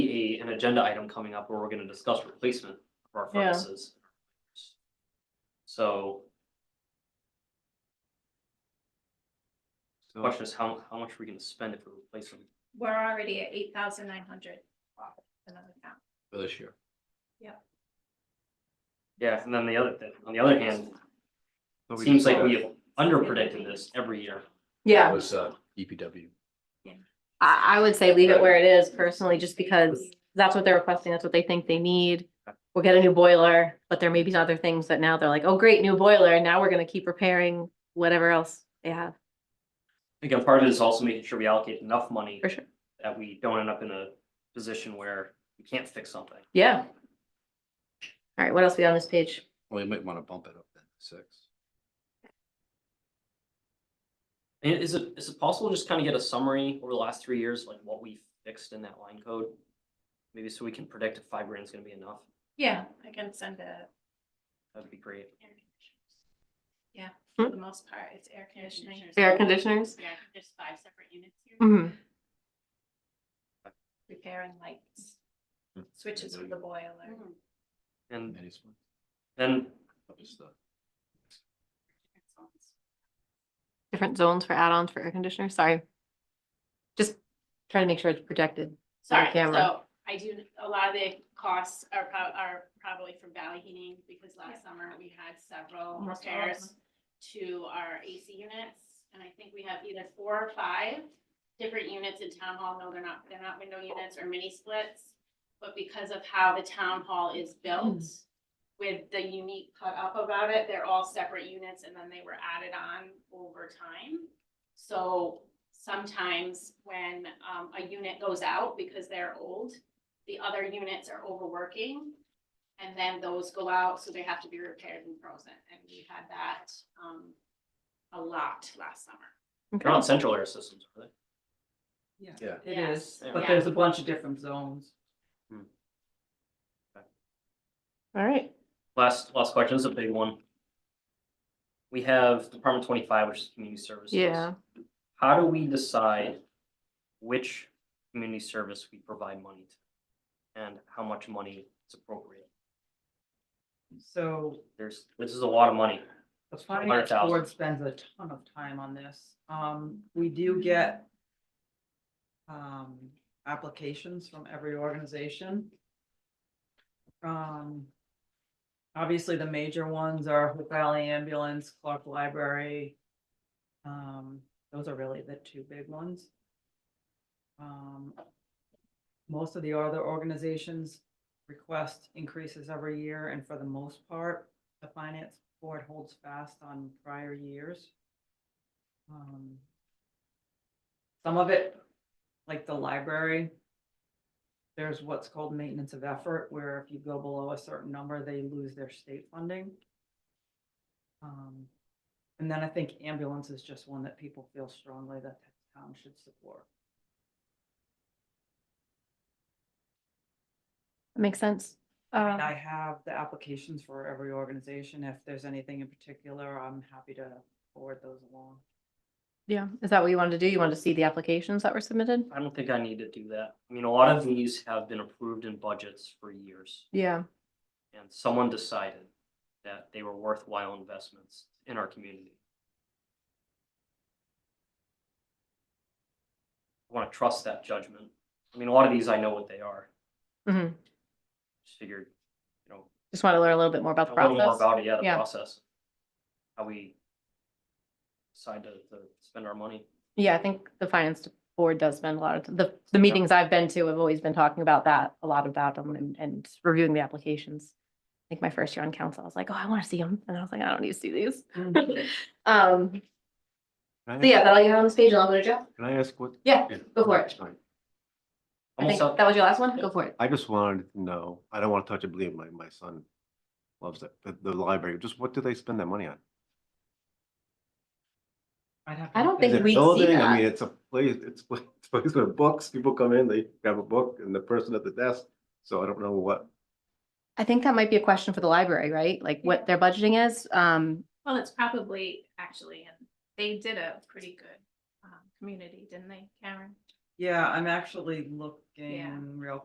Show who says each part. Speaker 1: an agenda item coming up where we're gonna discuss replacement of our
Speaker 2: Yeah.
Speaker 1: furnaces. So the
Speaker 3: So,
Speaker 1: question is, how, how much are we gonna spend if we replace them?
Speaker 4: We're already at eight thousand nine hundred. Another count.
Speaker 3: for this year.
Speaker 1: Yeah, and then the other, thing- on the other hand,
Speaker 3: So we
Speaker 1: seems
Speaker 3: just-
Speaker 1: like we have underpredicted this every year.
Speaker 2: Yeah,
Speaker 3: That was, uh, DPW.
Speaker 2: I, I would say leave it where it is personally, just because that's what they're requesting. That's what they think they need. We'll get a new boiler, but there may be other things that now they're like, oh, great, new boiler. Now we're gonna keep repairing whatever else they have.
Speaker 1: Again, part of it is also making sure we allocate enough money.
Speaker 2: For sure.
Speaker 1: That we don't end up in a position where we can't fix something.
Speaker 2: Yeah. All right, what else we got on this page?
Speaker 3: Well, you might wanna bump it up then, six.
Speaker 1: And is it, is it possible to just kind of get a summary over the last three years, like what we fixed in that line code? Maybe so we can predict if five grand's gonna be enough,
Speaker 4: Yeah, I can send a.
Speaker 1: that'd be great.
Speaker 4: Yeah,
Speaker 2: Hmm.
Speaker 4: for the most part, it's air conditioning.
Speaker 2: Air conditioners?
Speaker 5: Yeah, there's five separate units here.
Speaker 2: hmm
Speaker 4: Repairing lights,
Speaker 3: Hmm.
Speaker 4: switches for the boiler.
Speaker 5: Mhm.
Speaker 1: And
Speaker 3: Any sort
Speaker 1: then,
Speaker 3: of stuff.
Speaker 2: different zones for add-ons for air conditioners, sorry. Just trying to make sure it's projected.
Speaker 5: Sorry,
Speaker 2: camera.
Speaker 5: so I do, a lot of the costs are prob- are probably from valley heating because last summer we had several
Speaker 2: Almost all of
Speaker 5: repairs to our AC units. And I think we have either four or five different units in town hall. No, they're not, they're not window units or mini splits. But because of how the town hall is built with the unique cut up about it, they're all separate units and then they were added on over time. So sometimes when um a unit goes out because they're old, the other units are overworking. And then those go out, so they have to be repaired and frozen, and we had that um a lot last summer.
Speaker 1: they're on central air systems, are they?
Speaker 3: Yeah.
Speaker 6: It
Speaker 5: Yes.
Speaker 6: is, but
Speaker 5: Yeah.
Speaker 6: there's a bunch of different zones.
Speaker 1: Hmm.
Speaker 2: All right,
Speaker 1: Last, last question this is a big one. We have Department twenty-five, which is community services.
Speaker 2: yeah,
Speaker 1: How do we decide which community service we provide money to? And how much money is appropriate?
Speaker 6: So
Speaker 1: There's, this is a lot of money.
Speaker 6: the finance
Speaker 1: 100,000.
Speaker 6: board spends a ton of time on this. Um, we do get um, applications from every organization. Um, obviously the major ones are Hope Valley Ambulance, Clark Library. Um, those are really the two big ones. Um, most of the other organizations request increases every year, and for the most part, the finance board holds fast on prior years. Um, Some of it, like the library, there's what's called maintenance of effort, where if you go below a certain number, they lose their state funding. Um, And then I think ambulance is just one that people feel strongly that the town should support.
Speaker 2: that makes sense. Uh,
Speaker 6: And I have the applications for every organization. If there's anything in particular, I'm happy to forward those along.
Speaker 2: yeah, is that what you wanted to do? You wanted to see the applications that were submitted?
Speaker 1: I don't think I need to do that. I mean, a lot of these have been approved in budgets for years.
Speaker 2: Yeah,
Speaker 1: And someone decided that they were worthwhile investments in our community. I want to trust that judgment. I mean, a lot of these, I know what they are.
Speaker 2: hmm
Speaker 1: Just figured, you know,
Speaker 2: just want to learn a little bit more about the
Speaker 1: a little more
Speaker 2: process.
Speaker 1: about it, yeah, the
Speaker 2: Yeah.
Speaker 1: process. How we decide to, to spend our money.
Speaker 2: Yeah, I think the finance board does spend a lot of, the, the meetings I've been to have always been talking about that, a lot about them and, and reviewing the applications. I think my first year on council, I was like, oh, I want to see them. And I was like, I don't need to see these. Um,
Speaker 3: Can I
Speaker 2: so yeah, that'll you have on this page and I'll go to Joe.
Speaker 3: ask- Can I ask what?
Speaker 2: Yeah,
Speaker 3: yeah,
Speaker 2: go for
Speaker 3: no,
Speaker 2: it.
Speaker 3: it's fine.
Speaker 2: I think
Speaker 1: Almost,
Speaker 2: that
Speaker 1: a-
Speaker 2: was your last one. Go for it.
Speaker 3: I just wanted to know, I don't wanna touch it, believe my, my son loves that, the, the library, just what do they spend that money on?
Speaker 6: I'd have to
Speaker 2: I
Speaker 6: look
Speaker 2: don't
Speaker 6: at
Speaker 2: think
Speaker 3: Is
Speaker 6: it.
Speaker 3: it
Speaker 2: we see
Speaker 3: building? I
Speaker 2: that.
Speaker 3: mean, it's a place, it's, pla- it's a place with books, people come in, they grab a book and the person at the desk, so I don't know what.
Speaker 2: I think that might be a question for the library, right? Like what their budgeting is. Um,
Speaker 4: Well, it's probably actually, and they did a pretty good um community, didn't they, Karen?
Speaker 6: Yeah, I'm actually looking real